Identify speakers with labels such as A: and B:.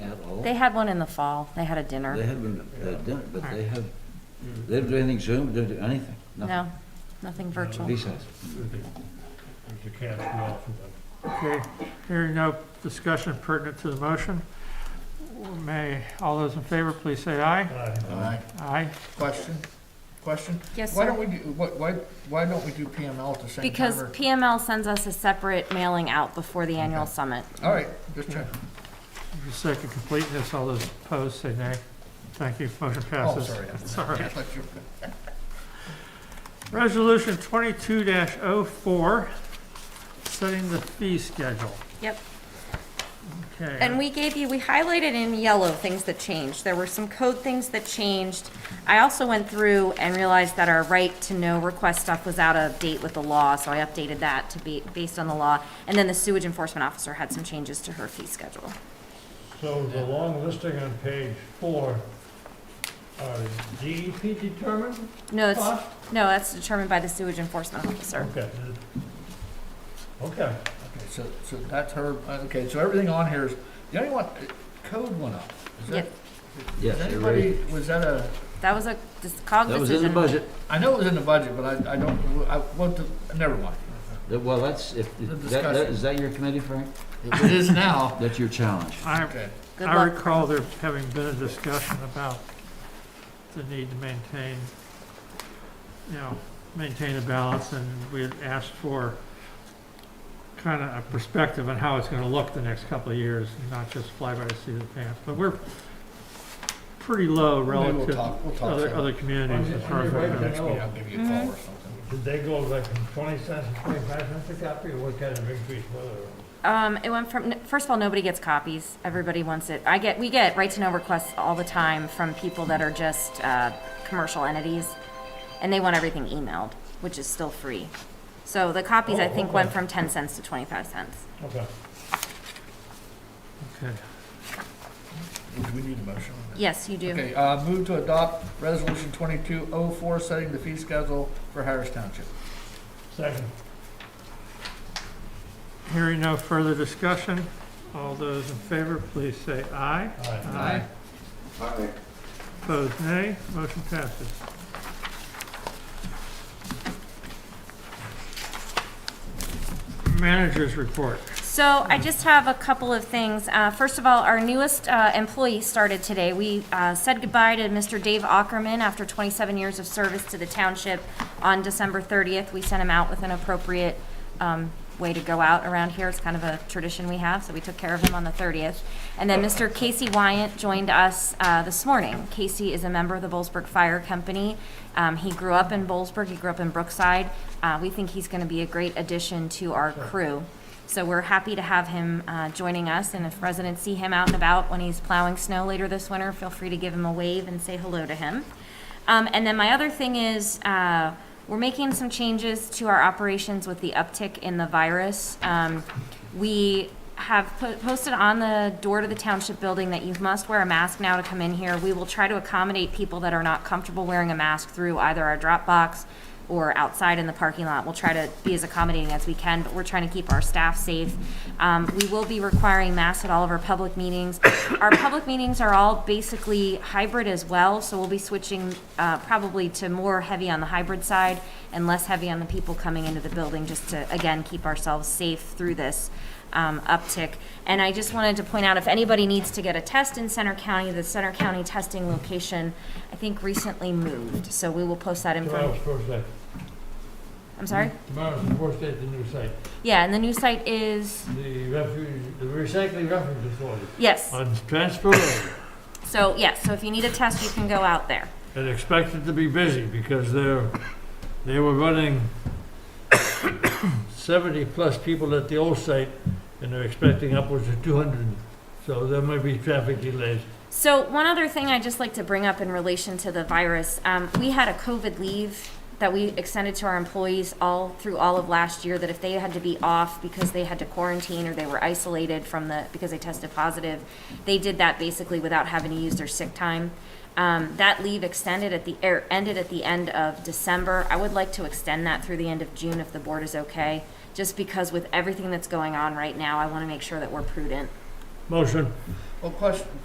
A: fall?
B: They had one in the fall. They had a
A: They
B: dinner.
A: had one at dinner, but they have,
C: Mhm.
A: they don't do anything Zoom, don't do anything, nothing.
B: No, nothing
C: No.
B: virtual.
A: Recess.
C: There's a cat's meow for them.
D: Okay, hearing no discussion pertinent to the motion. May, all those in favor, please say aye.
C: Aye.
D: Aye.
E: Question, question?
B: Yes,
E: Why don't
B: sir.
E: we do, why, why, why don't we do PML at the same time?
B: Because
E: or-
B: PML sends us a separate mailing out before the annual summit.
E: All right, just check.
D: For the sake of completeness, all those opposed say nay. Thank you, motion
E: Oh,
D: passes.
E: sorry.
D: It's all right.
E: Just let you-
D: Resolution twenty-two 4 setting the fee schedule.
B: Yep.
D: Okay.
B: And we gave you, we highlighted in yellow things that changed. There were some code things that changed. I also went through and realized that our right to know request stuff was out of date with the law, so I updated that to be based on the law. And then the sewage enforcement officer had some changes to her fee schedule.
C: So the long listing on page four, uh, are DEP determined
B: No, it's,
C: cost?
B: no, that's determined by the sewage enforcement officer.
C: Okay. Okay,
E: Okay, so, so that's her, uh, okay, so everything on here is, the only one, uh, code went up. Is that-
B: Yep.
A: Yes,
E: Is
A: they raised
E: anybody, was that a,
B: That was a dis- cog
A: That was in the
B: decision.
A: budget.
E: I know it was in the budget, but I, I don't, I, what, the- never mind.
A: That- Well, that's, if,
E: The
A: that, that,
E: discussion.
A: is that your committee, Frank?
E: If It is now.
A: That's your challenge.
D: I,
E: Okay,
B: Good
D: I
B: luck.
D: recall there having been a discussion about the need to maintain, you know, maintain a balance, and we had asked for kind of a perspective on how it's gonna look the next couple of years, not just fly by the seat of the pants, but we're pretty low
E: maybe we'll
D: relative to
E: talk, we'll talk.
D: other,
E: some-
D: other communities
C: Okay,
D: as far as
C: okay,
D: I
C: right,
D: know.
E: Next meeting, I'll give you a call or something.
C: did they go like from twenty cents to twenty-five cents a copy, or what kind of increase was it?
B: Um, it went from, first of all, nobody gets copies. Everybody wants it. I get, we get right to know requests all the time from people that are just, uh, commercial entities. And they want everything emailed, which is still free. So the copies, I
C: Oh,
B: think,
C: okay.
B: went from ten cents to twenty-five cents.
C: Okay.
D: Okay.
E: Do we need a motion on that?
B: Yes, you do.
E: Okay, uh, move to adopt resolution twenty-two oh four, setting the fee schedule for Harris Township.
C: Second.
D: Hearing no further discussion, all those in favor, please say aye.
C: Aye.
E: Aye.
D: Opposed, nay. Motion passes. Managers report.
B: So I just have a couple of things. Uh, First of all, our newest uh, employee started today. We uh, said goodbye to Mr. Dave Ackerman after 27 years of service to the township on December 30th. We sent him out with an appropriate um, way to go out around here. It's kind of a tradition we have, so we took care of him on the 30th. And then Mr. Casey Wyant joined us uh, this morning. Casey is a member of the Bollesburg Fire Company. Um, He grew up in Bollesburg, he grew up in Brookside. Uh, We think he's going to be a great addition to our crew. So we're happy to have him uh, joining us, and if residents see him out and about when he's plowing snow later this winter, feel free to give him a wave and say hello to him. Um, And then my other thing is, uh, we're making some changes to our operations with the uptick in the virus. Um, We have po- posted on the door to the township building that you must wear a mask now to come in here. We will try to accommodate people that are not comfortable wearing a mask through either our drop box or outside in the parking lot. We'll try to be as accommodating as we can, but we're trying to keep our staff safe. Um, we will be requiring masks at all of our public meetings. Our public meetings are all basically hybrid as well, so we'll be switching, uh, probably to more heavy on the hybrid side and less heavy on the people coming into the building, just to, again, keep ourselves safe through this um, uptick. And I just wanted to point out, if anybody needs to get a test in Center County, the Center County testing location, I think recently moved, so we will post that
C: Tomorrow's
B: information.
C: first day.
B: I'm sorry?
C: Tomorrow's the first day at the new site,
B: Yeah, and the new site is,
C: the refuge, the recycling refuge authority.
B: yes,
C: On Transfer Road.
B: so, yes, so if you need a test, you can go out there.
C: and expected to be busy because they're, they were running seventy-plus people at the old site, and they're expecting upwards of two hundred. So there might be traffic delays.
B: So one other thing I'd just like to bring up in relation to the virus, um, we had a COVID leave that we extended to our employees all through all of last year, that if they had to be off because they had to quarantine or they were isolated from the, because they tested positive, they did that basically without having to use their sick time. Um, that leave extended at the, er, ended at the end of December. I would like to extend that through the end of June if the board is okay, just because with everything that's going on right now, I wanna make sure that we're prudent.
C: Motion.
E: Well, question,